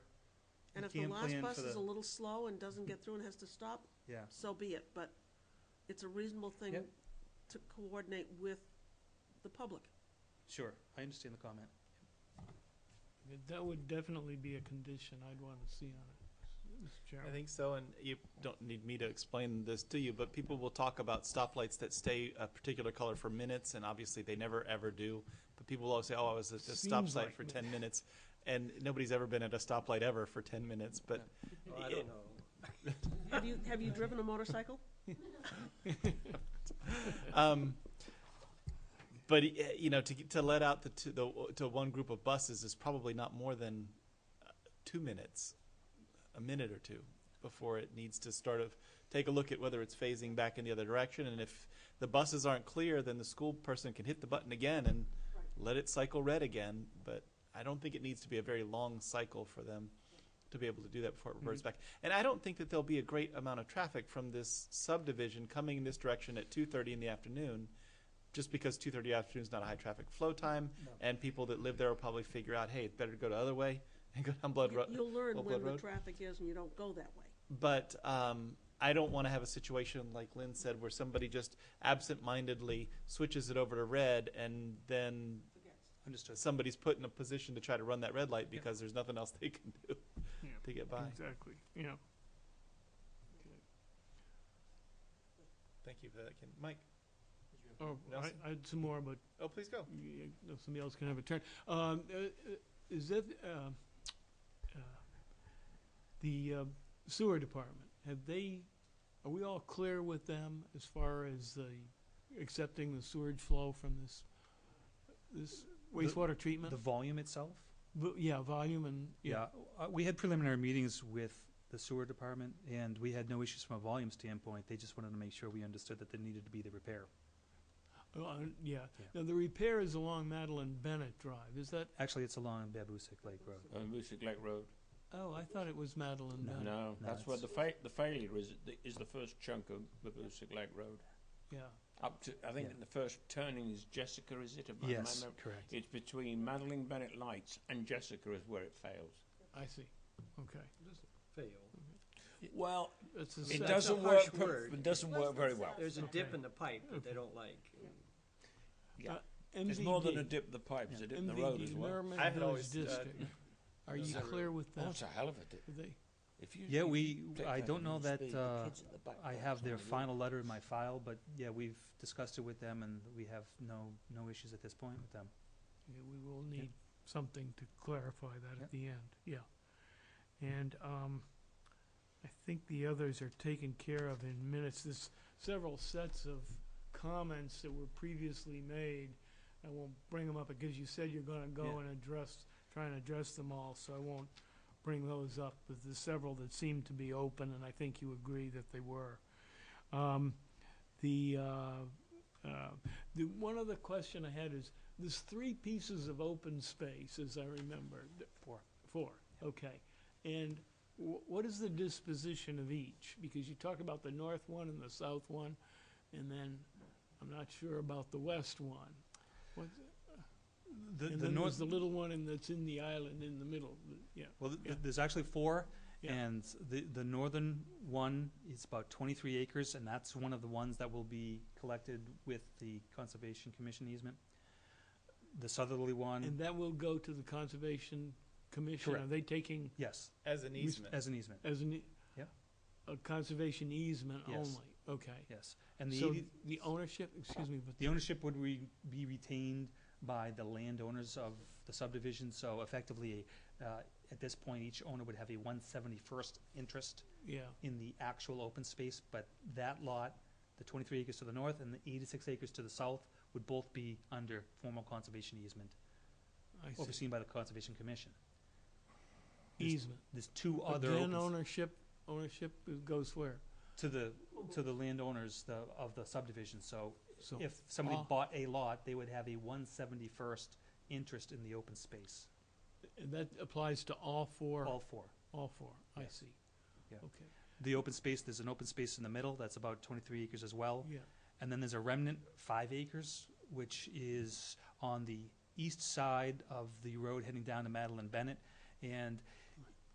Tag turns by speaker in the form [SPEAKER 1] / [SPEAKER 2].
[SPEAKER 1] if the
[SPEAKER 2] Can't
[SPEAKER 1] last
[SPEAKER 2] plan
[SPEAKER 1] bus
[SPEAKER 2] for
[SPEAKER 1] is a
[SPEAKER 2] the-
[SPEAKER 1] little slow and doesn't get through and has to stop,
[SPEAKER 2] Yeah,
[SPEAKER 1] so be it, but it's a reasonable thing
[SPEAKER 2] Yep.
[SPEAKER 1] to coordinate with the public.
[SPEAKER 2] sure, I understand the comment.
[SPEAKER 3] That would definitely be a condition I'd want to see on it, Mr.
[SPEAKER 4] I
[SPEAKER 3] Chairman.
[SPEAKER 4] think so, and you don't need me to explain this, do you? But people will talk about stoplights that stay a particular color for minutes, and obviously they never ever do. But people will always say, "Oh, I was at this stop
[SPEAKER 3] Seems
[SPEAKER 4] sign
[SPEAKER 3] like
[SPEAKER 4] for
[SPEAKER 3] it.
[SPEAKER 4] ten minutes," and nobody's ever been at a stoplight ever for ten minutes. But
[SPEAKER 5] I
[SPEAKER 4] it-
[SPEAKER 5] don't know.
[SPEAKER 1] Have you, have you driven a motorcycle?
[SPEAKER 4] um, but uh, you know, to to let out the, two, the to one group of buses is probably not more than uh, two minutes, a minute or two, before it needs to start of take a look at whether it's phasing back in the other direction, and if the buses aren't clear, then the school person can hit the button again and
[SPEAKER 1] Right.
[SPEAKER 4] let it cycle red again. But I don't think it needs to be a very long cycle for them to be able to do that before it reverts
[SPEAKER 1] Mm-hmm.
[SPEAKER 4] back. And I don't think that there'll be a great amount of traffic from this subdivision coming in this direction at two thirty in the afternoon, just because two thirty afternoon is not a high traffic flow time,
[SPEAKER 2] No.
[SPEAKER 4] and people that live there will probably figure out, hey, it's better to go the other way and go down Blood
[SPEAKER 1] You-
[SPEAKER 4] Road.
[SPEAKER 1] You'll learn
[SPEAKER 4] Old
[SPEAKER 1] when
[SPEAKER 4] Blood
[SPEAKER 1] the
[SPEAKER 4] Road?
[SPEAKER 1] traffic is and you don't go that way.
[SPEAKER 4] But um, I don't want to have a situation like Lynn said, where somebody just absent-mindedly switches it over to red, and then
[SPEAKER 2] Understood.
[SPEAKER 4] somebody's put in a position to try to run that red light because there's nothing else they can do
[SPEAKER 3] Yeah.
[SPEAKER 4] to get by.
[SPEAKER 3] Exactly, yeah.
[SPEAKER 4] Thank you for that, Ken. Mike.
[SPEAKER 3] Oh,
[SPEAKER 4] Nelson?
[SPEAKER 3] I, I had some more, but
[SPEAKER 4] Oh, please go.
[SPEAKER 3] y- y- somebody else can have a turn. Um, uh, uh, is that, um, uh, the uh, sewer department, have they, are we all clear with them as far as the accepting the sewage flow from this, this wastewater treatment?
[SPEAKER 2] The volume itself?
[SPEAKER 3] Vo- Yeah, volume and, yeah,
[SPEAKER 2] Yeah, uh, we had preliminary meetings with the sewer department, and we had no issues from a volume standpoint. They just wanted to make sure we understood that there needed to be the repair.
[SPEAKER 3] Oh, uh, yeah.
[SPEAKER 2] Yeah.
[SPEAKER 3] Now, the repair is along Madeline Bennett Drive, is that,
[SPEAKER 2] Actually, it's along Babusick Lake Uh, Road.
[SPEAKER 5] On Moosic Lake Road.
[SPEAKER 3] oh, I thought it was Madeline
[SPEAKER 2] No.
[SPEAKER 3] Bennett.
[SPEAKER 5] No, that's where
[SPEAKER 2] it's-
[SPEAKER 5] the fa- the failure is, the- is the first chunk of the Moosic Lake Road.
[SPEAKER 3] Yeah,
[SPEAKER 5] Up to, I think
[SPEAKER 2] Yeah.
[SPEAKER 5] the first turning is Jessica, is it? Am I- am I
[SPEAKER 2] Yes,
[SPEAKER 5] remem-
[SPEAKER 2] correct.
[SPEAKER 5] It's between Madeline Bennett Lights and Jessica is where it fails.
[SPEAKER 3] I see, okay.
[SPEAKER 5] Fail. Well,
[SPEAKER 3] It's a
[SPEAKER 5] it
[SPEAKER 3] set-
[SPEAKER 5] doesn't
[SPEAKER 3] uh,
[SPEAKER 5] work.
[SPEAKER 3] uh,
[SPEAKER 5] per-
[SPEAKER 3] uh,
[SPEAKER 5] It doesn't work very well.
[SPEAKER 1] There's
[SPEAKER 5] There's,
[SPEAKER 3] a dip in
[SPEAKER 5] the
[SPEAKER 6] pipe
[SPEAKER 3] that they
[SPEAKER 6] don't like.
[SPEAKER 3] Uh,
[SPEAKER 5] more than a
[SPEAKER 3] MVD,
[SPEAKER 5] dip of the pipe. There's a dip in the
[SPEAKER 3] MVD,
[SPEAKER 5] road as well.
[SPEAKER 3] Merrimack
[SPEAKER 4] I had
[SPEAKER 3] Village
[SPEAKER 4] always, uh,
[SPEAKER 3] District. Are you
[SPEAKER 5] Zero.
[SPEAKER 3] clear with
[SPEAKER 5] Oh,
[SPEAKER 3] that?
[SPEAKER 5] it's a hell of a dip.
[SPEAKER 3] Are they-
[SPEAKER 5] If you,
[SPEAKER 2] Yeah,
[SPEAKER 5] if
[SPEAKER 2] we-
[SPEAKER 5] you click
[SPEAKER 2] I don't
[SPEAKER 5] and
[SPEAKER 2] know
[SPEAKER 5] you
[SPEAKER 2] that,
[SPEAKER 5] speed, the
[SPEAKER 2] uh,
[SPEAKER 5] kids at the back
[SPEAKER 2] I
[SPEAKER 5] don't
[SPEAKER 2] have their
[SPEAKER 5] know.
[SPEAKER 2] final letter in my file, but yeah, we've discussed it with them, and we have no, no issues at this point with them.
[SPEAKER 3] yeah, We will need something to clarify that
[SPEAKER 2] Yeah.
[SPEAKER 3] at the end, yeah. And, um, I think the others are taken care of in minutes. There's several sets of comments that were previously made. I won't bring them up because you said you're gonna go
[SPEAKER 2] Yeah.
[SPEAKER 3] and address, try and address them all, so I won't bring those up. But there's several that seem to be open, and I think you agree that they were. Um, the, uh, uh, the, one other question I had is, there's three pieces of open space, as I remember. Th-
[SPEAKER 2] Four.
[SPEAKER 3] Four, okay. And wh- what is the disposition of each? Because you talk about the north one and the south one, and then I'm not sure about the west one. What's-
[SPEAKER 2] The,
[SPEAKER 3] And
[SPEAKER 2] the
[SPEAKER 3] then there's
[SPEAKER 2] north,
[SPEAKER 3] the little one and that's in the island in the middle, th- yeah.
[SPEAKER 2] well, th-
[SPEAKER 3] yeah.
[SPEAKER 2] there's actually four,
[SPEAKER 3] Yeah.
[SPEAKER 2] and the, the northern one is about twenty-three acres, and that's one of the ones that will be collected with the Conservation Commission easement. The southerly
[SPEAKER 3] And
[SPEAKER 2] one,
[SPEAKER 3] that will go to the Conservation Commission? Are
[SPEAKER 2] Correct.
[SPEAKER 3] they taking
[SPEAKER 2] yes,
[SPEAKER 4] as an
[SPEAKER 3] We s-
[SPEAKER 4] easement.
[SPEAKER 2] as an easement,
[SPEAKER 3] as an? e-
[SPEAKER 2] Yeah.
[SPEAKER 3] A conservation easement
[SPEAKER 2] Yes.
[SPEAKER 3] only? Okay.
[SPEAKER 2] yes. And the
[SPEAKER 3] So
[SPEAKER 2] eighty-
[SPEAKER 3] the ownership, excuse me, but
[SPEAKER 2] The ownership would re- be retained by the landowners of the subdivision, so effectively, uh, at this point, each owner would have a one seventy-first interest
[SPEAKER 3] yeah.
[SPEAKER 2] in the actual open space, but that lot, the twenty-three acres to the north and the eighty-six acres to the south, would both be under formal conservation easement,
[SPEAKER 3] I see.
[SPEAKER 2] overseen by the Conservation Commission. There's-
[SPEAKER 3] Easement.
[SPEAKER 2] There's two
[SPEAKER 3] But
[SPEAKER 2] other
[SPEAKER 3] then
[SPEAKER 2] opens,
[SPEAKER 3] ownership, ownership goes where?
[SPEAKER 2] to the, to the landowners the, of the subdivision, so
[SPEAKER 3] So,
[SPEAKER 2] if somebody
[SPEAKER 3] Ah.
[SPEAKER 2] bought a lot, they would have a one seventy-first interest in the open space,
[SPEAKER 3] and that applies to all four,
[SPEAKER 2] all four.
[SPEAKER 3] all four, I
[SPEAKER 2] Yes.
[SPEAKER 3] see.
[SPEAKER 2] Yeah.
[SPEAKER 3] Okay,
[SPEAKER 2] The open space, there's an open space in the middle, that's about twenty-three acres as well.
[SPEAKER 3] yeah,
[SPEAKER 2] And then there's a remnant, five acres, which is on the east side of the road heading down to Madeline Bennett. And